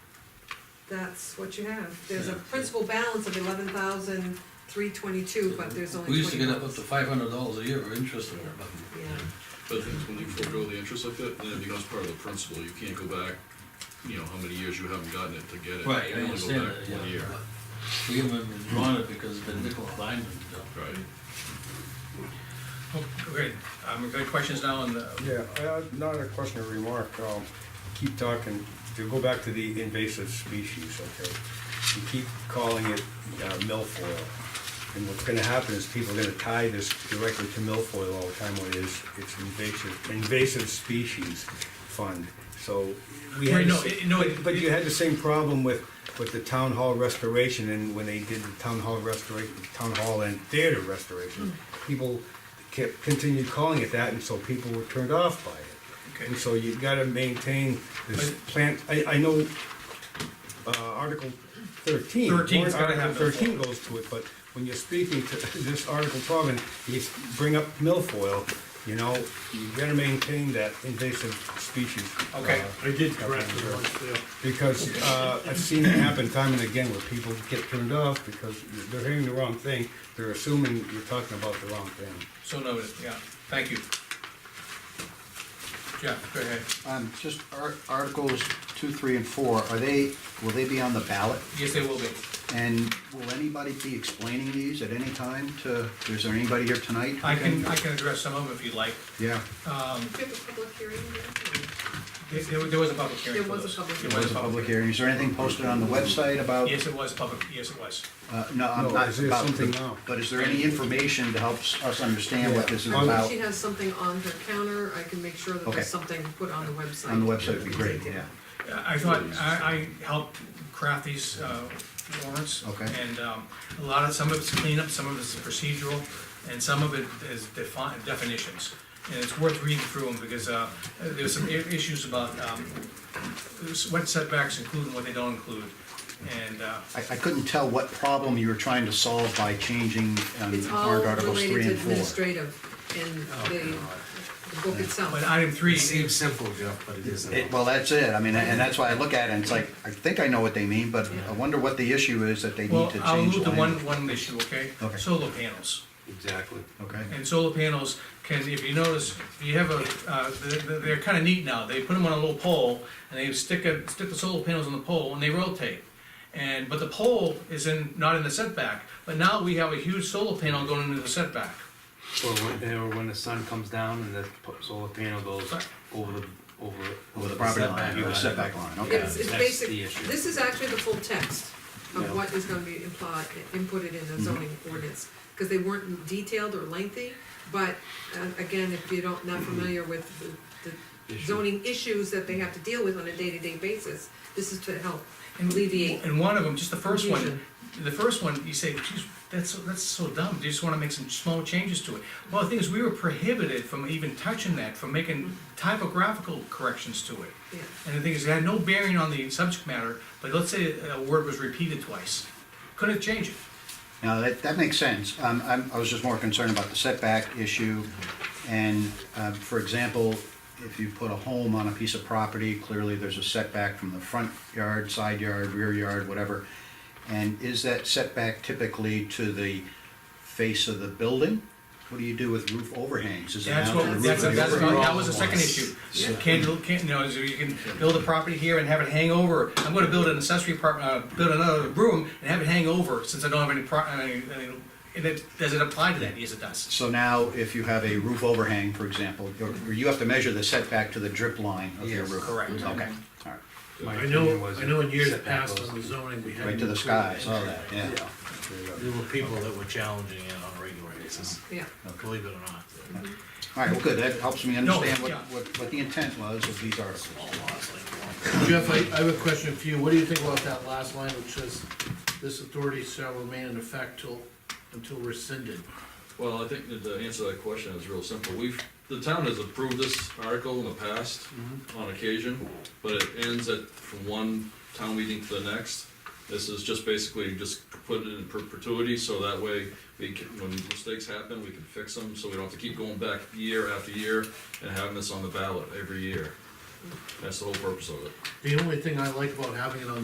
that's what you have. There's a Yeah. principal balance of eleven thousand three twenty-two, but there's only We used to twenty get up up dollars. to five hundred dollars a year of interest on it, but Yeah, But the thing is, when you forego the interest like that, then it becomes part of the principal, you can't go back, you know, how many years you haven't gotten it to get it. Right, You I can only go understand back that, one yeah. year. but We haven't drawn it because it's been nickel and diamond. Right, Okay, um, we've got questions now on the, Yeah, uh, not a question or remark, um, keep talking, to go back to the invasive species, okay? You keep calling it uh, milfoil, and what's gonna happen is people are gonna tie this directly to milfoil all the time, when it is, it's invasive, invasive species fund, so. we had Right, the no, sa- it- no, it- But you had the same problem with, with the town hall restoration, and when they did the town hall restoration, town hall and theater restoration, Hmm. people kept, continued calling it that, and so people were turned off by it. okay, And so you gotta maintain this But- plant, I, I know, uh, Article thirteen. 13's warrant gotta have Article Thirteen goes to it, but when you're speaking to this Article twelve and you s- bring up milfoil, you know, you gotta maintain that invasive species. Okay. uh, I did correct it once there. because uh, I've seen it happen time and again where people get turned off because they're hearing the wrong thing. They're assuming you're talking about the wrong thing. so noted, yeah, thank you. Jeff, go ahead, Um, just ar- articles two, three, and four, are they, will they be on the ballot? yes, they will be. And will anybody be explaining these at any time to, is there anybody here tonight? who I can, Uh, I can address some of them if you'd like. Yeah, do you have a public hearing yet? There- There, there was a public hearing There for was a those. public it was a public hearing, is there anything posted on the website about? Yes, it was public, yes, it was. Uh, no, I'm No, not is there about, something now? but is there any information to help s- us understand what this is Yeah. If about? she has something on her counter, I can make sure that Um, Okay. there's something put on the website. On the website would be great, yeah. I thought, I, I helped craft these uh, warrants. Okay. And um, a lot of, some of it's cleanup, some of it's procedural, and some of it is defi- definitions. And it's worth reading through them, because uh, there's some i- issues about um, what setbacks include and what they don't include. And, uh, I, I couldn't tell what problem you were trying to solve by changing, um, It's all warrant articles related three to and four. administrative Oh, and the, the book itself. but item three, It seems simple, Jeff, but it isn't. It- Well, that's it, I mean, and that's why I look at it, and it's like, I think I know what they mean, but I wonder what the issue is that they need well, to I'll change move the to one, language. one issue, okay? Okay. Solar panels. Exactly. Okay, And solar panels can, if you notice, if you have a, uh, they're, they're kinda neat now, they put them on a little pole, and they stick a, stick the solar panels on the pole, and they rotate. And, but the pole is in, not in the setback, but now we have a huge solar panel going into the setback. Or when, or when the sun comes down and the p- solar panel goes over the, over. over the property line, setback over the setback line, okay. It's, it's That's basic, the issue. this is actually the full text Yeah. Mm-hmm. of what is gonna be implied, inputted in the zoning ordinance, because they weren't detailed or lengthy, but, uh, again, if you don't, not familiar with the- the Mm-hmm. Issue. zoning issues that they have to deal with on a day-to-day basis, this is to help alleviate. And one of them, just the first one, Confusion. the first one, you say, geez, that's, so- that's so dumb, they just wanna make some small changes to it. Well, the thing is, we were prohibited from even touching that, from making typographical corrections to it. Mm-hmm. Yeah. And the thing is, it had no bearing on the subject matter, but let's say a word was repeated twice, couldn't change it. Now, that, that makes sense. Um, I'm, I was just more concerned about the setback issue. And, uh, for example, if you put a home on a piece of property, clearly there's a setback from the front yard, side yard, rear yard, whatever. And is that setback typically to the face of the building? What do you do with roof overhangs? Is it That's out to the what, roof that's, of the that's, overhang? that was the second issue. Can, can, you know, is you can build a property here and have it hang over, I'm gonna build an accessory apartment, uh, build another room and have it hang over, since I don't have any pro, I mean, I mean, and it, does it apply to that? Yes, it does. So now, if you have a roof overhang, for example, you you have to measure the setback to the drip line of your Yes, Mm-hmm. roof. correct. Okay, all right. My I opinion know, was I know in years setback past goes- on the zoning, we had. Right to the sky, I saw that, yeah. Yeah. There were people that were challenging it on a regular basis, Yeah, believe it or not. All right, well, good, that helps me understand what, yeah. what, what the intent was of these articles. Jeff, I, I have a question for you. What do you think about that last line which says, this authority shall remain in effect till, until rescinded? well, I think that to answer that question is real simple, we've, the town has approved this article in the past on occasion, but it ends at, from one town meeting to the next. This is just basically just put it in perpetuity, so that way, we can, when mistakes happen, we can fix them, so we don't have to keep going back year after year and having this on the ballot every year. That's the whole purpose of it. The only thing I like about having it on